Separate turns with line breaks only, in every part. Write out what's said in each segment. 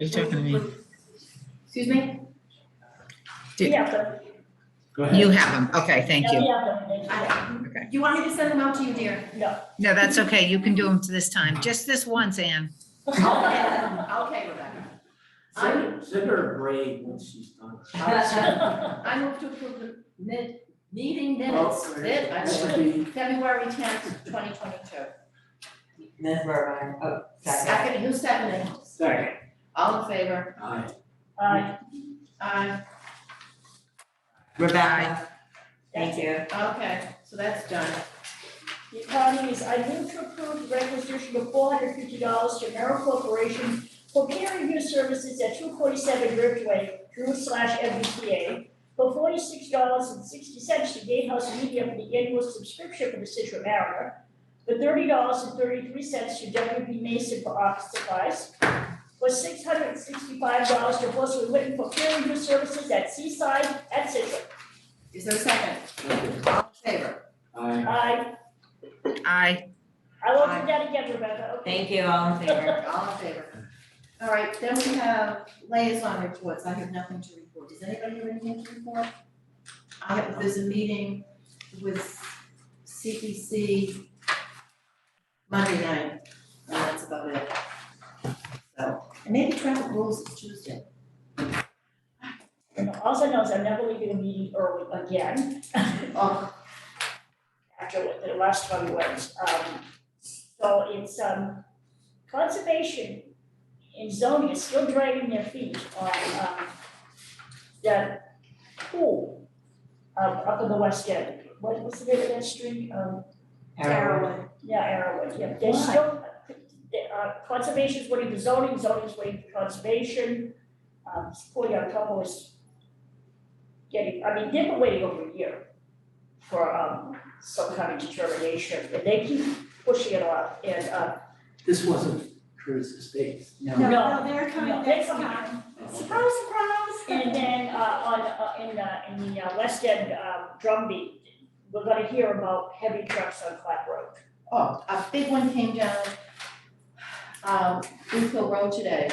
Are you talking to me?
Excuse me?
Do-
We have them.
Go
You have them, okay, thank
Yeah,
you.
we have them. They- yeah.
Do you want me to send them out to you, dear?
No, that's okay, you can do them this time, just this once, Ann.
Okay, Rebecca. I,
Send, send her a braid once she's done.
I move to approve the mid, meeting minutes,
Oh,
mid, I mean,
This would be
February tenth, twenty twenty-two.
Ms. Burbine, oh, second.
Second, who's seconding?
Second.
All in favor?
Aye.
Uh,
Aye,
Rebecca, thank you.
okay, so that's done.
The economy is, I move to approve the requisition of four hundred fifty dollars to Merrill Corporation for peer review services at two forty-seven Ridgeway, Drew slash MBTA, for forty-six dollars and sixty cents to Gatehouse Media for the annual subscription for the Citro Mariner, for thirty dollars and thirty-three cents to WB Mason for office supplies, for six hundred and sixty-five dollars to Horstley Witten for peer review services at Seaside at Citro.
Is there a second?
Second.
All in favor?
Aye.
Aye,
I,
I will do that again, Rebecca, okay?
Thank you, all in favor.
All in favor? All right, then we have liaison reports, I have nothing to report, does anybody have anything to report? I have, there's a meeting with CPC Monday night, and that's about it. So, and maybe traffic rules is Tuesday.
And also knows I'm never leaving a meeting early again,
Oh,
after what the last one was. Um, so it's, um, conservation and zoning is still dragging their feet on, um, the pool, um, up in the west end. What was the name of that street? Um,
Carolyn,
yeah, Arrowwood, yeah. They're
Why?
still, they- uh, conservation's waiting for zoning, zoning's waiting for conservation. Um, poor young couple is getting, I mean, they've been waiting over a year for, um, some kind of determination, and they keep pushing it off, and, uh,
This wasn't Cruz's estate.
no,
No.
no, they're coming
No,
next
they're coming.
time. Surprise, surprise.
and then, uh, on, uh, in, uh, in the uh, west end, um, drumbeat, we're gonna hear about heavy trucks on Flat Road.
Oh, a big one came down, um, Booth Hill Road today,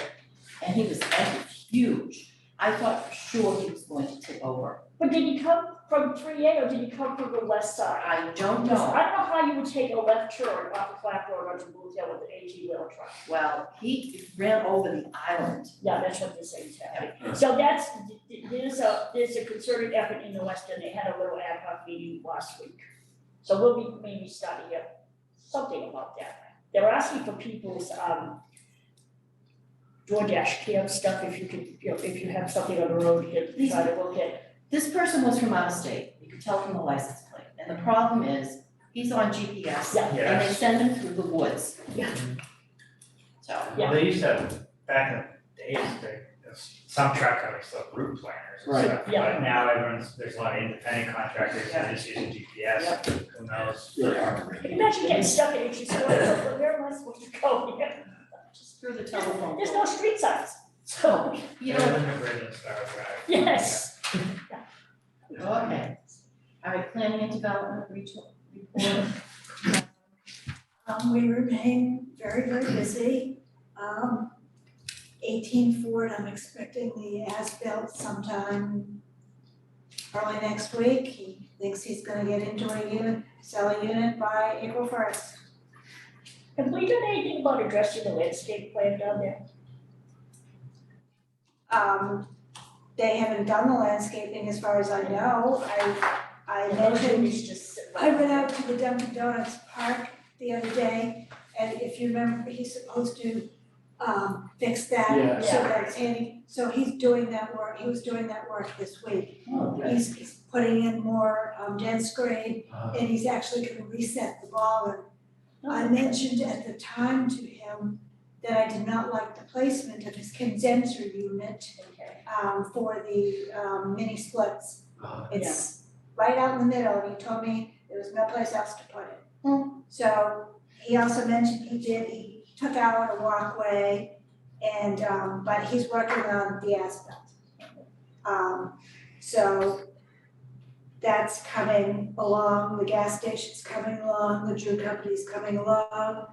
and he was and huge. I thought for sure he was going to tip over.
But did you come from three A, or did you come from the west side?
I don't
Because
know,
I don't know how you would take a left turn off of Flat Road onto Booth Hill with an eighteen wheel truck.
well, he ran over the island.
Yeah, that's what they're saying, is happening. So that's, th- th- there's a, there's a concerted effort in the West End. They had a little ad hoc meeting last week. So we'll be maybe starting up something about that. They're asking for people's, um, DoorDash cam stuff, if you could, you know, if you have something on the road, you try to look at.
This person was from out of state, you could tell from the license plate, and the problem is, he's on GPS.
Yeah.
And they
Yes.
send him through the woods.
Yeah.
So,
Yeah.
They used to have, back in the days, there, some truck companies still have route planners and
Right.
stuff, but
Yeah.
now everyone's, there's a lot of independent contractors that just using GPS, who knows?
Imagine getting stuck in E Itchy Square, where am I supposed to go here?
just through the telephone.
There's no street signs, so, you
They're
know,
in the grid and stuff, right?
yes.
Okay. All right, planning and development retool, report.
Um, we remain very, very busy. Um, eighteen Ford, I'm expecting the as-built sometime early next week. He thinks he's gonna get into a unit, sell a unit by April first.
Have we done anything about addressing the landscape plan down there?
Um, they haven't done the landscaping as far as I know. I, I mentioned
It's just.
I went out to the Dunkin' Donuts park the other day, and if you remember, he's supposed to um fix
Yeah.
that, so that's handy, so he's doing that work, he was doing that work this week. He's he's putting in more um dense grade,
Uh,
and he's actually gonna reset the baller. I mentioned at the time to him that I did not like the placement of his condenser unit
Okay.
um for the um mini splits.
Uh,
It's right out in the middle, and he told me there was no place else to put it. So he also mentioned he did, he took out a walkway and, um, but he's working on the asphalt. Um, so that's coming along, the gas station's coming along, the Drew Company's coming along.